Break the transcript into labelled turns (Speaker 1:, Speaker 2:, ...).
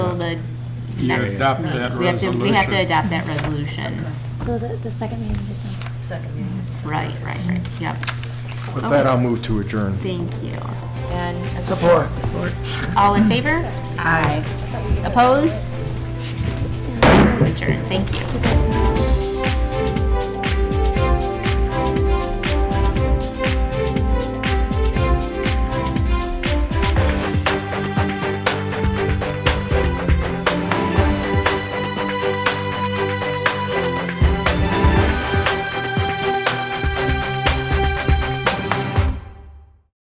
Speaker 1: the
Speaker 2: You
Speaker 1: next.
Speaker 2: adopt
Speaker 1: meeting.
Speaker 2: that
Speaker 1: We have to, we have to
Speaker 2: resolution.
Speaker 1: adopt that resolution.
Speaker 3: So the, the second meeting is on.
Speaker 4: Second meeting.
Speaker 1: Right, right, right, yep.
Speaker 5: With that, I'll move to adjourn.
Speaker 1: Thank you.
Speaker 4: And.
Speaker 5: Support.
Speaker 1: All in favor? Aye. Opposed? Adjourned, thank you.